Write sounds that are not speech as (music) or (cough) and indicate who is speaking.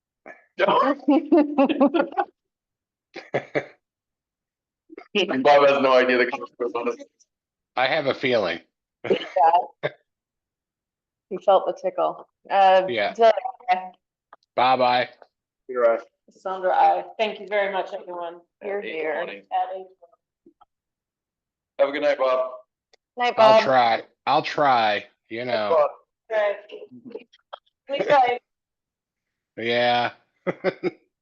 Speaker 1: (laughs)
Speaker 2: (laughs)
Speaker 1: Bob has no idea the consequence on this.
Speaker 3: I have a feeling.
Speaker 2: He felt the tickle. Uh,
Speaker 3: Yeah.
Speaker 2: Doug,
Speaker 3: Bye bye.
Speaker 1: You're right.
Speaker 2: Sandra, I thank you very much, everyone. You're
Speaker 1: At eight
Speaker 2: here.
Speaker 1: twenty. Have a good night, Bob.
Speaker 2: Night,
Speaker 3: I'll
Speaker 2: Bob.
Speaker 3: try. I'll try, you know.
Speaker 2: Right. Sleep tight.
Speaker 3: Yeah.